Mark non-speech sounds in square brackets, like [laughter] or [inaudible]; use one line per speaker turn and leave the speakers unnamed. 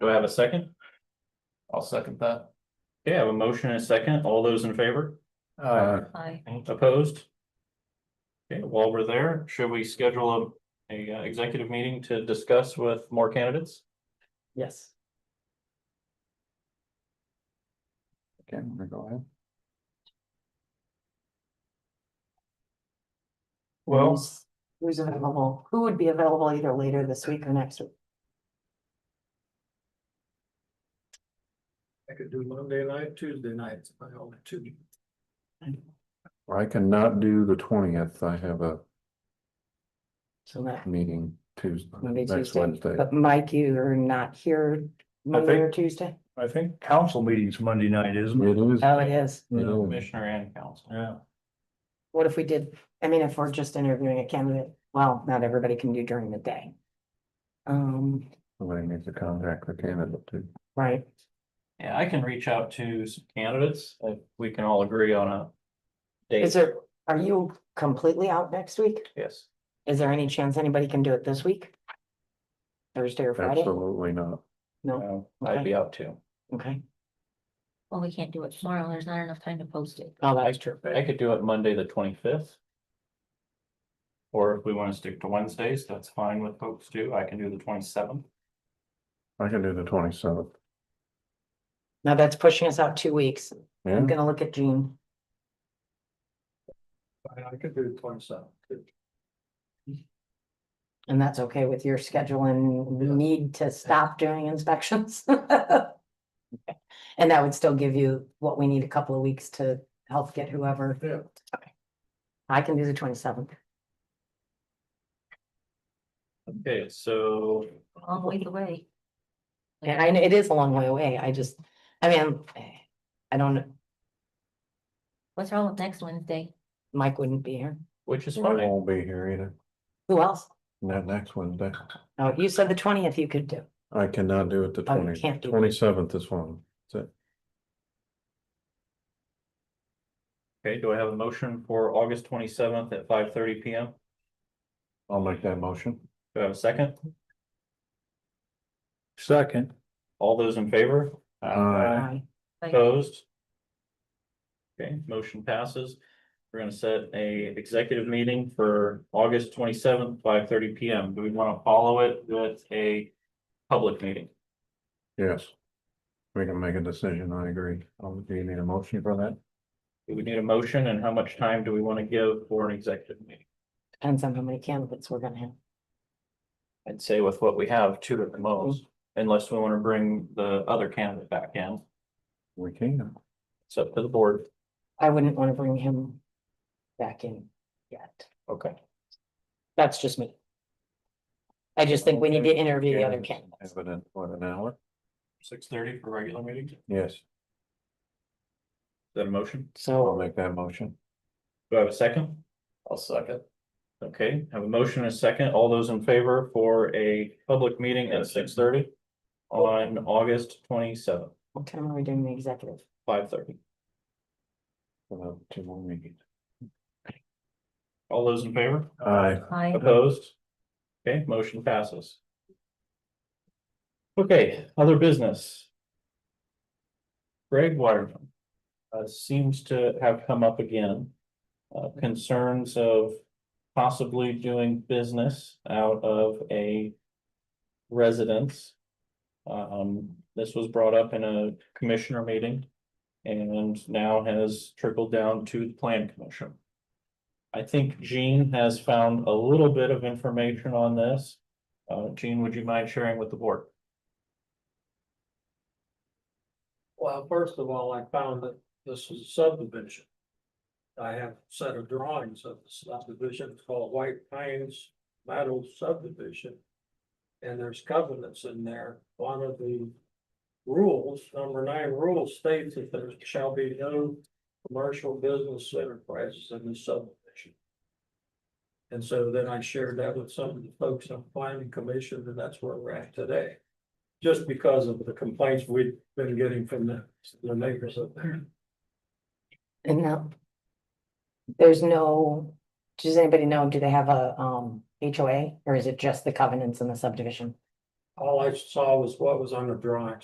Do I have a second?
I'll second that.
Okay, I have a motion and a second. All those in favor?
Uh,
Aye.
Opposed? Okay, while we're there, should we schedule a, a uh, executive meeting to discuss with more candidates?
Yes.
okay, I'm gonna go ahead. Well,
Who's who's available? Who would be available either later this week or next week?
I could do Monday night, Tuesday night, if I only two.
I cannot do the twentieth. I have a
So that,
meeting Tuesday,
Monday,
next
Tuesday.
Wednesday.
but Mike, you're not here Monday or Tuesday?
I think council meeting's Monday night, isn't it?
It is,
Oh, it is.
you know,
Commissioner and council.
Yeah.
What if we did, I mean, if we're just interviewing a candidate, well, not everybody can do during the day. Um,
somebody needs to contact the candidate too.
right,
Yeah, I can reach out to some candidates if we can all agree on a
is
date.
there, are you completely out next week?
Yes.
Is there any chance anybody can do it this week? Thursday or Friday?
Absolutely not.
No,
Um, I'd be out too.
okay,
Well, we can't do it tomorrow. There's not enough time to post it.
oh,
I
that's true,
I could do it Monday, the twenty-fifth. Or if we want to stick to Wednesdays, that's fine with folks too. I can do the twenty-seventh.
I can do the twenty seventh.
now that's pushing us out two weeks,
Yeah,
I'm gonna look at June.
I could do twenty-seven.
And that's okay with your schedule and the
Yeah.
need to stop doing inspections? [laughs] Okay. And that would still give you what we need a couple of weeks to help get whoever.
Yeah.
I can do the twenty seventh.
Okay, so
All the way the way.
And I know it is a long way away. I just, I mean, I don't,
What's wrong with next Wednesday?
Mike wouldn't be here.
which is
I
fine.
won't be here either.
Who else?
Not next Wednesday.
Oh, you said the twentieth you could do.
I cannot do it the
Oh, you
twenty,
can't do it.
twenty seventh is one. That's it.
Okay, do I have a motion for August twenty-seventh at five thirty P M?
I'll make that motion.
Do I have a second?
Second.
All those in favor?
Aye.
I
Opposed? Okay, motion passes. We're gonna set a executive meeting for August twenty-seventh, five thirty P M. Do we wanna follow it with a public meeting?
Yes. We can make a decision, I agree. Um, Do you need a motion for that?
Do we need a motion and how much time do we wanna give for an executive meeting?
Depends on how many candidates we're gonna have.
I'd say with what we have, two at the most, unless we wanna bring the other candidate back in.
We can.
It's up to the board.
I wouldn't wanna bring him back in yet.
Okay.
That's just me. I just think we need to interview the other
Yeah.
candidates.
Have it in what, an hour?
Six thirty for regular meeting. Is
Yes,
that a motion?
I'll
So
make that motion.
Do I have a second? I'll second. Okay, have a motion and a second. All those in favor for a public meeting at six thirty? On August twenty seventh,
what time are we doing the executive?
five thirty.
We'll have Two more meetings.
All those in favor?
Aye.
Hi.
Opposed? Okay, motion passes. Okay, other business. Greg Waterman. Uh, seems to have come up again. Uh, concerns of possibly doing business out of a residence. Um, this was brought up in a commissioner meeting. And now has trickled down to the plan commission. I think Jean has found a little bit of information on this. Uh, Jean, would you mind sharing with the board?
Well, first of all, I found that this is a subdivision. I have a set of drawings of the subdivision It's called White Pines Meadow Subdivision. And there's covenants in there. One of the rules, number nine rule states that there shall be no commercial business enterprises in the subdivision. And so then I shared that with some of the folks on planning commission, and that's where we're at today. Just because of the complaints we've been getting from the, the neighbors up there.
And now. There's no, does anybody know, do they have a um HOA or is it just the covenants in the subdivision?
all I saw was what was on the drawings.